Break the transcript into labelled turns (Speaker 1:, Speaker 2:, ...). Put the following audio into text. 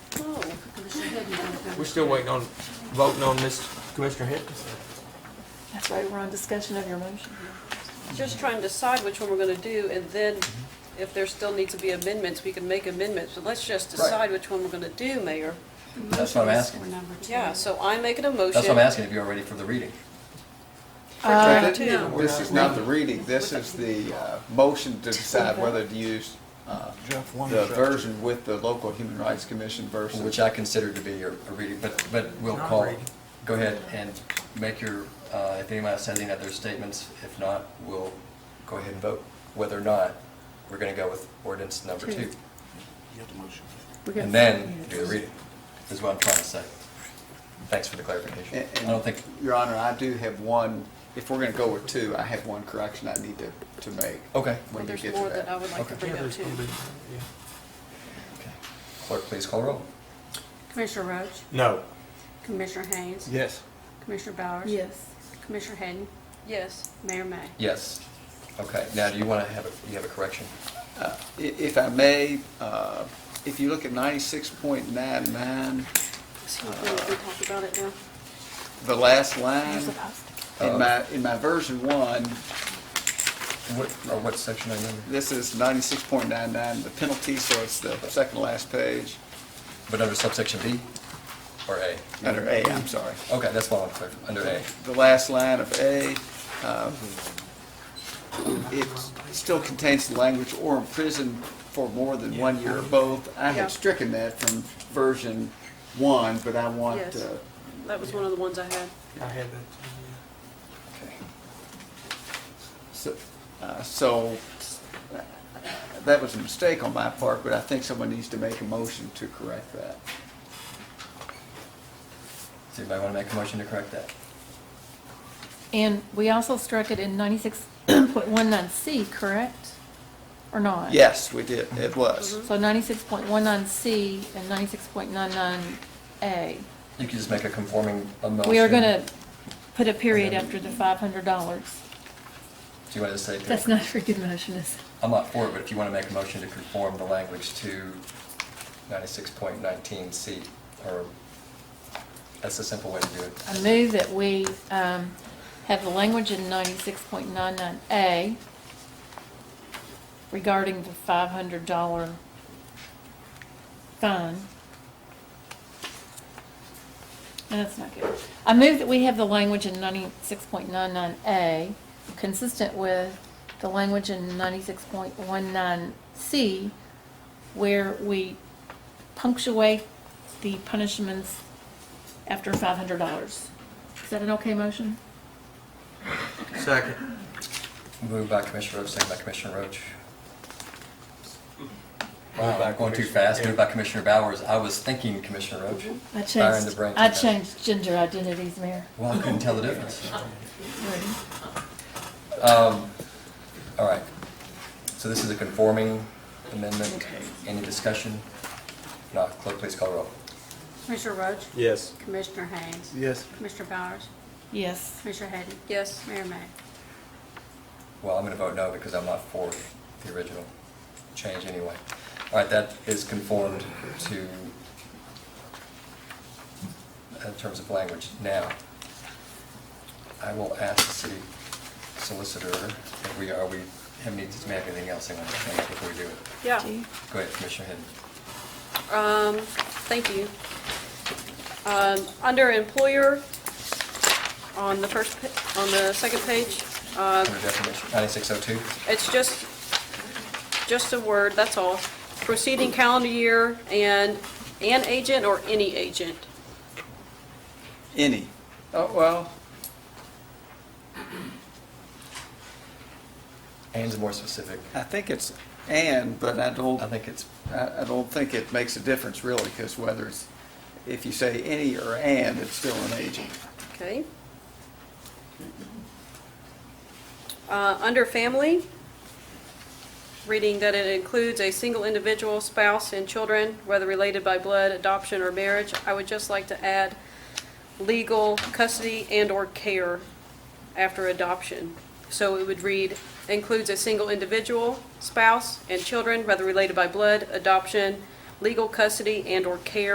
Speaker 1: Oh,
Speaker 2: We're still waiting on, voting on this Commissioner Hickins.
Speaker 3: That's right, we're on discussion of your motion.
Speaker 1: Just trying to decide which one we're gonna do, and then if there still need to be amendments, we can make amendments, but let's just decide which one we're gonna do, Mayor.
Speaker 4: That's what I'm asking.
Speaker 5: Oh,
Speaker 1: Yeah, so I am making a
Speaker 4: That's what I'm
Speaker 1: motion.
Speaker 4: asking if you're ready for the reading.
Speaker 1: Uh,
Speaker 6: But thi-
Speaker 1: two.
Speaker 6: This is not the reading, this is the uh, motion to decide whether to use uh,
Speaker 7: Jeff, one
Speaker 6: the
Speaker 7: second.
Speaker 6: version with the local human rights commission versus.
Speaker 4: Which I consider to be a a reading, but, but we'll
Speaker 2: Not
Speaker 4: call,
Speaker 2: reading.
Speaker 4: go ahead and make your, uh, if anyone has any other statements, if not, we'll go ahead and vote whether or not we're going to go with ordinance number
Speaker 3: Two.
Speaker 4: two.
Speaker 7: You have the motion.
Speaker 4: And then do the reading, is what I'm trying to say. Thanks for the clarification.
Speaker 6: And-
Speaker 4: I
Speaker 6: and,
Speaker 4: don't think,
Speaker 6: Your Honor, I do have one, if we're gonna go with two, I have one correction I need to, to make.
Speaker 4: okay.
Speaker 1: Well,
Speaker 6: When you
Speaker 1: there's
Speaker 6: get
Speaker 1: more
Speaker 6: to
Speaker 1: that I
Speaker 6: that.
Speaker 1: would like to
Speaker 4: Okay.
Speaker 1: bring up too.
Speaker 4: Okay. Clerk, please call roll.
Speaker 5: Commissioner Roach,
Speaker 2: No.
Speaker 5: Commissioner Haynes,
Speaker 2: Yes.
Speaker 5: Commissioner Bowers.
Speaker 3: Yes.
Speaker 5: Commissioner Hadden,
Speaker 1: Yes,
Speaker 5: Mayor May.
Speaker 4: Yes. Okay, now do you want to have, a you have a correction?
Speaker 6: Uh, i- If I may, uh, if you look at ninety-six point nine nine,
Speaker 1: so we can we can talk about it now.
Speaker 6: the last line,
Speaker 3: You're supposed to.
Speaker 4: Uh,
Speaker 6: in my, in my version one,
Speaker 4: What, or what section are you in?
Speaker 6: this is ninety-six point nine nine, the penalty, so it's the second to last page,
Speaker 4: But under subsection B or A?
Speaker 6: under A, I'm sorry.
Speaker 4: Okay, that's what I'm clear, under A.
Speaker 6: the last line of A, uh, it still contains the language or imprisoned for more than one year or both. I
Speaker 1: Yeah.
Speaker 6: had stricken that from version one, but I want,
Speaker 1: Yes.
Speaker 6: uh,
Speaker 1: That was one of the ones I had.
Speaker 2: I have that.
Speaker 4: Okay.
Speaker 6: so- uh, so, uh, that was a mistake on my part, but I think someone needs to make a motion to correct that.
Speaker 4: Does anybody want to make a motion to correct that?
Speaker 3: And we also struck it in ninety-six point one nine C, correct? Or not?
Speaker 6: Yes, we did, it was.
Speaker 3: So ninety-six point one nine C and ninety-six point nine nine A.
Speaker 4: You can just make a conforming a motion.
Speaker 3: We are gonna put a period after the five hundred dollars.
Speaker 4: Do you want to say?
Speaker 3: That's not a very good motion, is it?
Speaker 4: I'm not for it, but if you want to make a motion to conform the language to 96.19C, or, that's the simple way to do it.
Speaker 3: I move that we um, have the language in ninety-six point nine nine A regarding the five hundred dollar fine. No, that's not good. I move that we have the language in ninety-six point nine nine A consistent with the language in ninety-six point one nine C where we punctuate the punishments after five hundred dollars. Is that an okay motion?
Speaker 2: Second.
Speaker 4: Moved by Commissioner Roach, second by Commissioner Roach.
Speaker 2: Moved by
Speaker 4: Wow, going too
Speaker 2: Commissioner-
Speaker 4: fast.
Speaker 2: yeah.
Speaker 4: Moved by Commissioner Bowers. I was thinking Commissioner Roach.
Speaker 3: I
Speaker 4: Fire in
Speaker 3: changed,
Speaker 4: the brain.
Speaker 3: I changed gender identities, Mayor.
Speaker 4: Well, I couldn't tell the difference. Um, All right. So this is a conforming amendment. Any discussion? Not, clerk, please call roll.
Speaker 5: Commissioner Roach,
Speaker 2: Yes.
Speaker 5: Commissioner Haynes,
Speaker 7: Yes.
Speaker 5: Commissioner Bowers,
Speaker 3: Yes.
Speaker 5: Commissioner Hadden,
Speaker 1: Yes,
Speaker 5: Mayor May.
Speaker 4: Well, I'm going to vote no because I'm not for the original change anyway. All right, that is conformed to, in uh, terms of language. Now, I will ask the city solicitor if we, are we, have any, does we have anything else they want to say before we do it?
Speaker 1: yeah.
Speaker 4: Go ahead, Commissioner Hidden.
Speaker 1: Um, thank you. Um, under employer, on the first, pa- on the second page, uh,
Speaker 4: Under definition, 9602,
Speaker 1: It's just, just a word, that's all. Proceeding calendar year and an agent or any agent.
Speaker 6: Any. Oh, well,
Speaker 4: Anne's more specific.
Speaker 6: I think it's and, but I don't.
Speaker 4: I think it's,
Speaker 6: I, I don't think it makes a difference really, because whether it's, if you say any or and, it's still an agent.
Speaker 1: Okay. Uh, Under family, reading that it includes a single individual, spouse, and children, whether related by blood, adoption, or marriage, I would just like to add legal custody and/or care after adoption. So it would read, includes a single individual, spouse, and children, whether related by blood, adoption, legal custody, and/or care